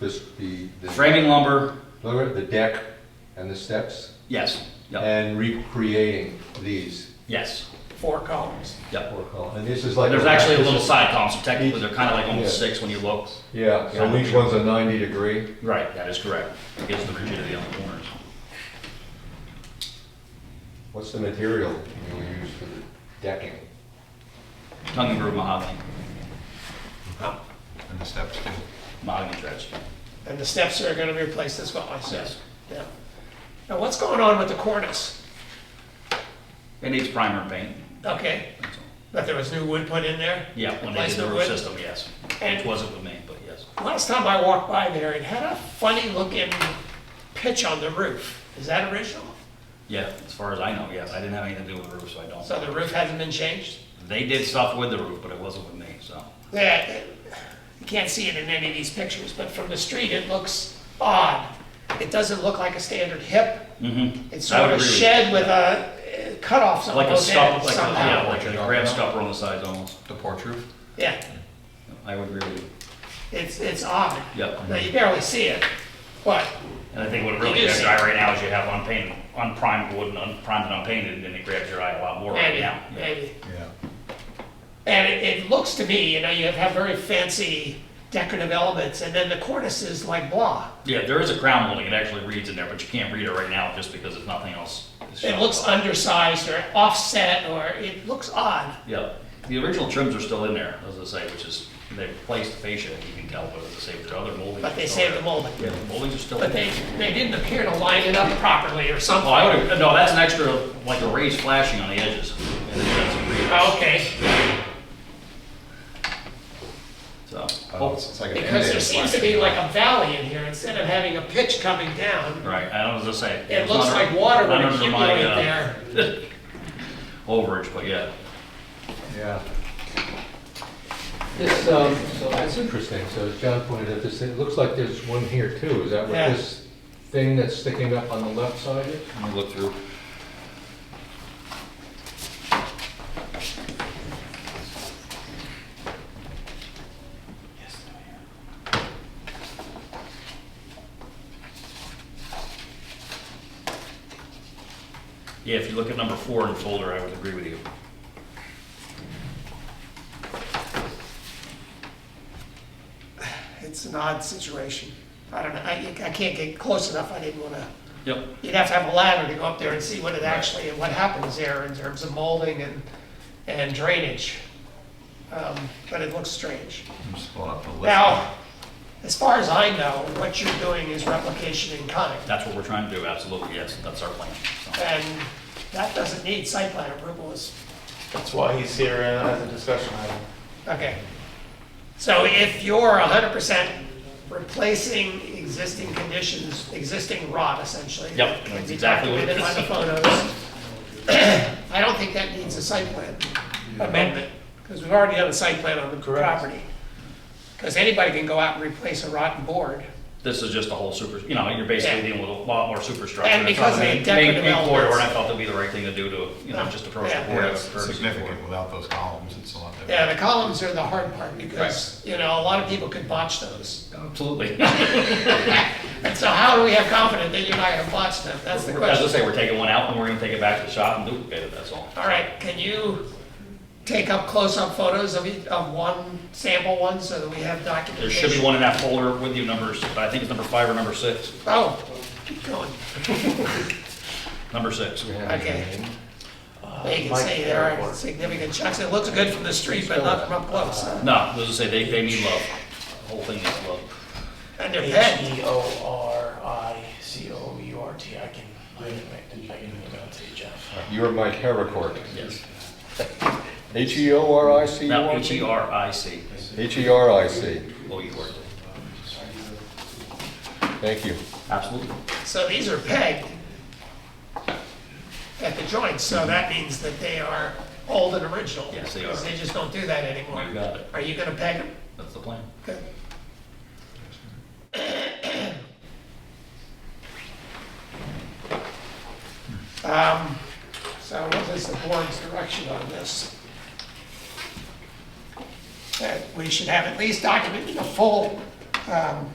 this, the, the, Framing lumber, look at the deck and the steps, yes, yep, and recreating these. yes, four columns. yep. four columns. And this is like. There's actually a this little is- side column, so technically Each- they're kind of like almost yeah. six when you look. Yeah, so each one's a ninety degree. Right, that is correct. It gives the rigidity on the corners. What's the material you use for the decking? Tongue and groove mahogany, Oh, and the steps too. mahogany dredge. And the steps are gonna be replaced as well, I said. Yes. Yeah. Now, what's going on with the cornice? It needs primer and paint. Okay, that's all. but there was new wood put in there? Yeah, when they Replace did the the roof wood? system, yes. And- Which wasn't with me, but yes. Last time I walked by there, it had a funny looking pitch on the roof. Is that original? Yeah, as far as I know, yes. I didn't have anything to do with the roof, so I don't. So the roof hasn't been changed? They did stuff with the roof, but it wasn't with me, so. Yeah, it- you can't see it in any of these pictures, but from the street, it looks odd. It doesn't look like a standard hip. Mm-hmm. It's I would sort of agree a with shed with a uh, cutoffs on Like a both scup, ends like a, yeah, somehow. like a grab scupper on the sides almost. The porch roof? Yeah, I would agree with you. it's, it's odd. Yep. Now, you barely see it, but And I think what You really do grabs see your eye right now is you have unpainted, unprimed wood and unprimed and unpainted, and then it grabs your eye a lot more right maybe, now. Yeah. maybe. Yeah. And it, it looks to me, you know, you have very fancy decorative elements, and then the cornice is like blah. Yeah, there is a crown molding, it actually reads in there, but you can't read it right now just because if nothing else. is It shown. looks undersized or offset, or it looks odd. Yeah, the original trims are still in there, as I say, which is, they replaced the fascia, you can tell, but as I say, the other moldings. But are they still saved there. the molding. Yeah, the moldings are still in But there. they, they didn't appear to line it up properly or something. Oh, I would, no, that's an extra, like a raised flashing on the edges. And then that's a re- Okay, So, Oh, hope- it's it's like an because there end seems to be like a valley in here, instead of having a pitch coming down, oh, right, I was gonna say. it it's looks not a- like water would not under my, accumulate uh, there. Overage, but yeah. Yeah. This, um, so that's interesting, so as John pointed out, this, it looks like there's one here too, is that what Yeah. this thing that's sticking up on the left side is? Let me look through. Yeah, if you look at number four in the folder, I would agree with you. It's an odd situation. I don't know, I, I can't get close enough, I didn't wanna, Yep. you'd have to have a ladder to go up there and see what it actually, what happens there in terms of molding and, and drainage. Um, But it looks strange. I'm just pulling up the list. Now, as far as I know, what you're doing is replication in kind. That's what we're trying to do, absolutely, yes, that's our plan. so. And that doesn't need site plan approval, is, That's why he's here and has a discussion item. okay. So if you're hundred percent replacing existing conditions, existing rod essentially. Yep, that can that's be exactly what it documented is. by the photos. I don't think that needs a site plan amendment, because we've already done a site plan on the Correct. property. Because anybody can go out and replace a rotten board. This is just a whole super, you know, you're basically Yeah. dealing with a lot more superstructure. And That's not because of the main- decorative main- main corridor, elements. And I thought that'd be the right thing to do to, you know, Yeah. just approach Yeah. the board. Yeah, out it's of courtesy. significant without those columns, it's a lot different. Yeah, the columns are the hard part, because, you know, a lot of people could botch those. Absolutely. And so how do we have confidence that you're not gonna botch them? That's the As I question. say, we're taking one out and we're gonna take it back to the shop and duplicate it, that's all. All right, can you take up close-up photos of each, of one, sample one, so that we have There documentation? should be one in that folder with you numbers, but I think it's number five or number six. Oh, keep going. Number six. Okay. Uh, They can see there are significant chunks. It looks good from the street, but not from up close. No, as I say, they, they need love. The whole thing needs love. And they're bent. H E O R I C O U R T, I can, I can make, I can email it to you, Jeff. You're my terracord. Yes. H E O R I C U Now, R H E T? R I C, H E R I C, O U R T. thank you. Absolutely. So these are pegged at the joints, so that means that they are old and original. Yes, they are. Because they just don't do that anymore. You got it. Are you gonna peg them? That's the plan. Good. Um, So what is the board's direction on this? That we should have at least documented a full um,